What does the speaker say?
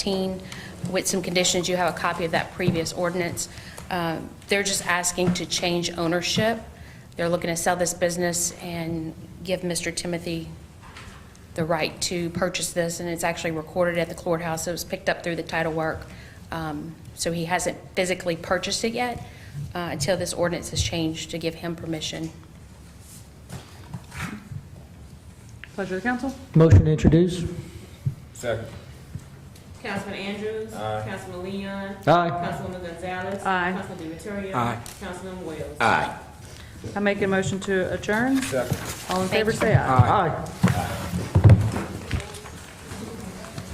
15 with some conditions. You have a copy of that previous ordinance. Um, They're just asking to change ownership. They're looking to sell this business and give Mr. Timothy the right to purchase this, and it's actually recorded at the courthouse. It was picked up through the title work. Um, So he hasn't physically purchased it yet uh, until this ordinance is changed to give him permission. Pleasure of the council. Motion to introduce? Second. Councilman Andrews. Councilman Leon. Aye. Councilwoman Gonzalez. Aye. Councilman Demetriou. Aye. Councilman Wells. Aye. I make a motion to adjourn. Second. All in favor, say aye. Aye. Aye.